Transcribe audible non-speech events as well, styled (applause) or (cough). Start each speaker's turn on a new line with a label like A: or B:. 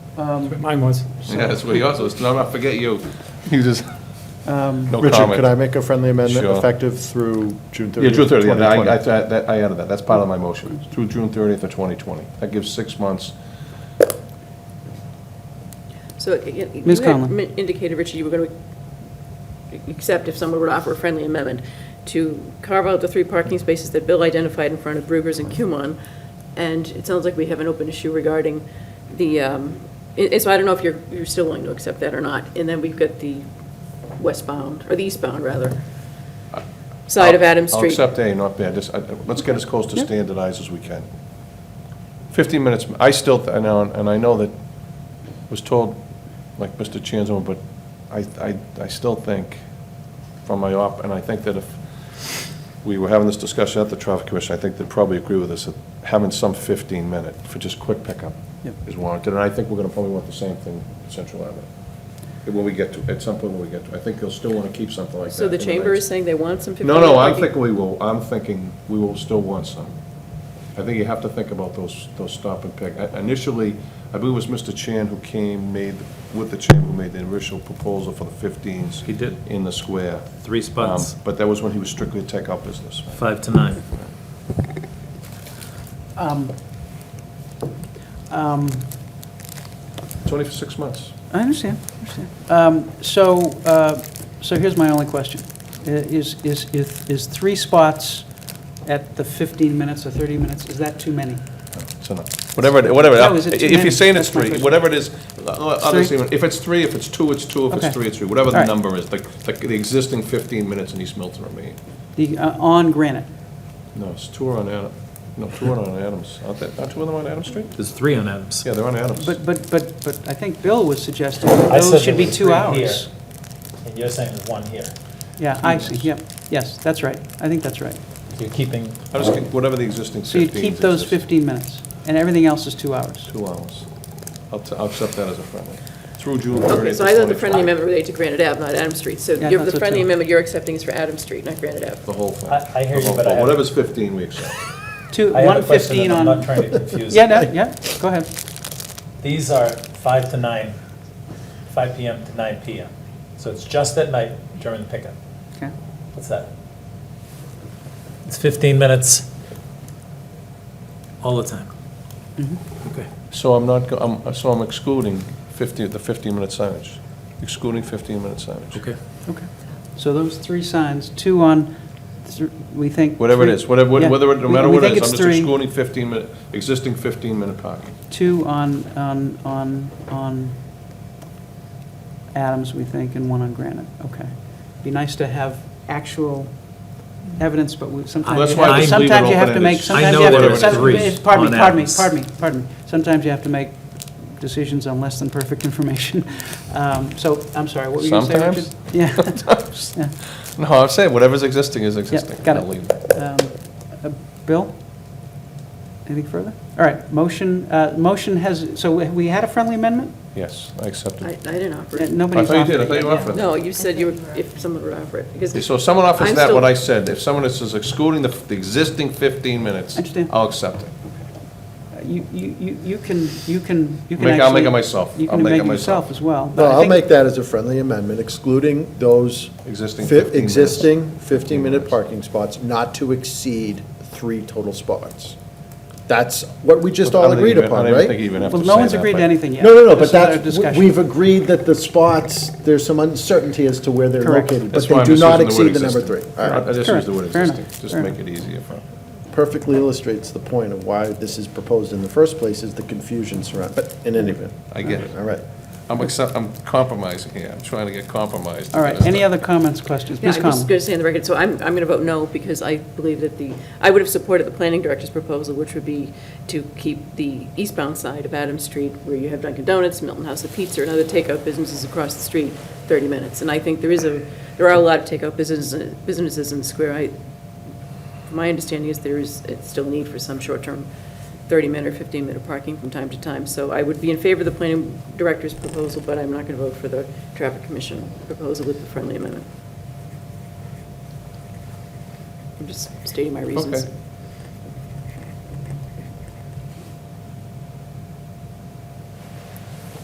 A: Um,
B: That's what Mine was.
C: (laughs) Yeah, that's what he also, it's not, I forget you. You
D: (laughs)
C: just, no comment.
D: Richard, could I make a friendly amendment
C: Sure.
D: effective through June 30th?
C: Yeah, June 30th, yeah, I, I,
D: 2020?
C: that- I added that, that's part of my motion, through June 30th of 2020. That gives six months.
E: So you you
A: Ms.
E: had
A: Conlon.
E: min- indicated, Richard, you were going to accept if someone were to offer a friendly amendment to carve out the three parking spaces that Bill identified in front of Brugger's and Cumon. And it sounds like we have an open issue regarding the, um, i- so I don't know if you're, you're still willing to accept that or not. And then we've got the westbound, or the eastbound, rather, side of Adams
C: I'll
E: Street.
C: accept A, not B. I just, I- let's get as close to standardized as we can. 15 minutes, I still, th- and I and I know that, was told, like Mr. Chanzo, but I, I, I still think, from my op, and I think that if we were having this discussion at the traffic commission, I think they'd probably agree with us, that having some 15-minute for just quick pickup
A: Yep.
C: is warranted, and I think we're going to probably want the same thing in Central Avenue, when we get to, at some point when we get to, I think they'll still want to keep something like that.
E: So the
C: in
E: chamber
C: mix.
E: is saying they want some 15
C: No, no, I'm
E: parking.
C: thinking we will, I'm thinking we will still want some. I think you have to think about those, those stop and pick. I- Initially, I believe it was Mr. Chan who came, made, with the chamber, who made the initial proposal for the 15s.
F: He did.
C: In the square.
F: Three spots,
C: Um, But that was when he was strictly a takeout business.
F: five to nine.
C: It's only for six months.
A: I understand, I understand. Um, So, uh, so here's my only question. I- Is, is, is is three spots at the 15 minutes or 30 minutes, is that too many?
C: It's enough. Whatever, it- whatever,
A: No, is it too
C: if
A: many?
C: you're saying it's
A: That's my
C: three,
A: question.
C: whatever it is, uh, uh, others
A: Three?
C: even- if it's three, if it's two, it's two, if
A: Okay.
C: it's three, it's three, whatever the
A: All right.
C: number is, like, like the existing 15 minutes in East Milton remain.
A: The, uh, on Granite?
C: No, it's two are on Adam, no, two are on Adams, aren't there, aren't two of them on Adams Street?
F: There's three on Adams.
C: Yeah, they're on Adams.
A: But, but, but, but I think Bill was suggesting that
G: I said
A: those should
G: there
A: be
G: was
A: two
G: three
A: hours.
G: here. And you're saying there's one here.
A: Yeah, I see, yep, yes, that's right. I think that's right.
G: You're keeping,
C: I just think whatever the existing
A: So you'd
C: fifteen.
A: keep those 15 minutes, and everything else is two hours.
C: Two hours. I'll, t- I'll accept that as a friendly. Through June
E: Okay,
C: thirtieth.
E: so I thought the friendly amendment related to Granite Ave, not Adams Street. So
A: Yeah,
E: you're-
A: that's
E: the
A: what
E: friendly
A: too.
E: amendment you're accepting is for Adams Street, not Granite Ave.
C: The whole thing.
G: I- I hear
C: The
G: you,
C: whole
G: but I
C: thing.
G: have-
C: Whatever's fifteen, we accept.
A: Two,
G: I have a
A: 115
G: question and I'm
A: on...
G: not trying to confuse.
A: Yeah, no, yeah, go ahead.
G: These are five to nine, five PM to nine PM. So it's just at night during the pickup.
A: Okay.
G: What's that? It's 15 minutes
F: All the time.
A: Mm-hmm.
F: Okay.
C: So I'm not, go- I'm, so I'm excluding fifty, the fifteen-minute signage, excluding fifteen-minute signage.
F: Okay.
A: Okay. So those three signs, two on, thr- we think...
C: Whatever it
A: three-
C: is, whatever,
A: yeah.
C: whether, no
A: We-
C: matter
A: we
C: what it
A: think it's
C: is, I'm just
A: three.
C: excluding fifteen-minute, existing fifteen-minute parking.
A: Two on, on, on, on Adams, we think, and one on Granite, okay. Be nice to have actual evidence, but we,
C: Well,
A: sometimes
C: that's
A: you
C: why I
A: have,
C: leave it
A: sometimes you have to make,
C: open-ended.
A: sometimes
F: I
A: you have
F: know
A: to...
F: there
A: some-
F: were three
A: Pardon me,
F: on
A: pardon me,
F: Adams.
A: pardon me, pardon me. Sometimes you have to make decisions on less than perfect (laughs) information. Um, So, I'm sorry, what were you going to say,
C: Sometimes?
A: Richard? Sometimes? Yeah.
C: No, I'm saying whatever's existing is existing.
A: got it.
C: I'll leave
A: Um, uh, Bill? Anything further? All right, motion, uh, motion has, so we- we had a friendly amendment?
C: Yes, I accept
E: I, I
C: it.
E: didn't offer
A: Uh,
E: it.
C: I
A: Nobody's
C: thought you
A: offered
C: did, I
A: it
C: thought
A: yet,
C: you
A: yeah.
C: offered it.
E: No, you said you would, if someone would offer it, because.
C: Okay, So if someone offers
E: I'm
C: that,
E: still-
C: what I said, if someone is is excluding the, the existing 15 minutes,
A: Understand.
C: I'll accept it.
A: Uh, You, you, you- you can, you can, you can
C: Make-
A: actually.
C: I'll make it myself.
A: You
C: I'll
A: can
C: make
A: make
C: it
A: it yourself
C: myself.
A: as well. but
D: No,
A: I
D: I'll
A: think-
D: make that as a friendly amendment, excluding those
C: Existing
D: fi-
C: 15 minutes.
D: existing 15-minute parking spots not to exceed three total spots. That's what we just
C: I
D: all
C: don't
D: agreed
C: even-
D: upon,
C: I don't even think you
D: right?
C: even have to
A: Well,
C: say
A: no one's
C: that,
A: agreed
C: but-
A: to anything yet.
D: No, no,
A: This
D: no, but
A: is our
D: that's, w-
A: discussion.
D: we've agreed that the spots, there's some uncertainty as to where they're
A: Correct.
D: located, but
C: That's why
D: they
C: I'm
D: do
C: just
D: not
C: using
D: exceed the
C: word
D: number three.
C: existing.
D: All
C: I- I
D: right.
C: just use the word
A: Correct. Fair
C: existing,
A: enough.
C: just
A: Fair
C: make it easier for,
D: Perfectly illustrates the point of why this is proposed in the first place, is the confusion surround, but in any event,
C: I get it.
D: all right.
C: I'm accept, I'm compromising here, I'm trying to get compromised.
A: All right, any other comments, questions?
E: Yeah,
A: Ms.
E: I'm just
A: Conlon?
E: going to say on the record, so I'm, I'm going to vote no, because I believe that the, I would have supported the planning director's proposal, which would be to keep the eastbound side of Adams Street, where you have Dunkin' Donuts, Milton House of Pizza, and other takeout businesses across the street, 30 minutes. And I think there is a, there are a lot of takeout businesses, businesses in the square. I, my understanding is there is, it's still a need for some short-term 30-minute or 15-minute parking from time to time. So I would be in favor of the planning director's proposal, but I'm not going to vote for the traffic commission proposal with the friendly amendment. I'm just stating my reasons.
C: Okay.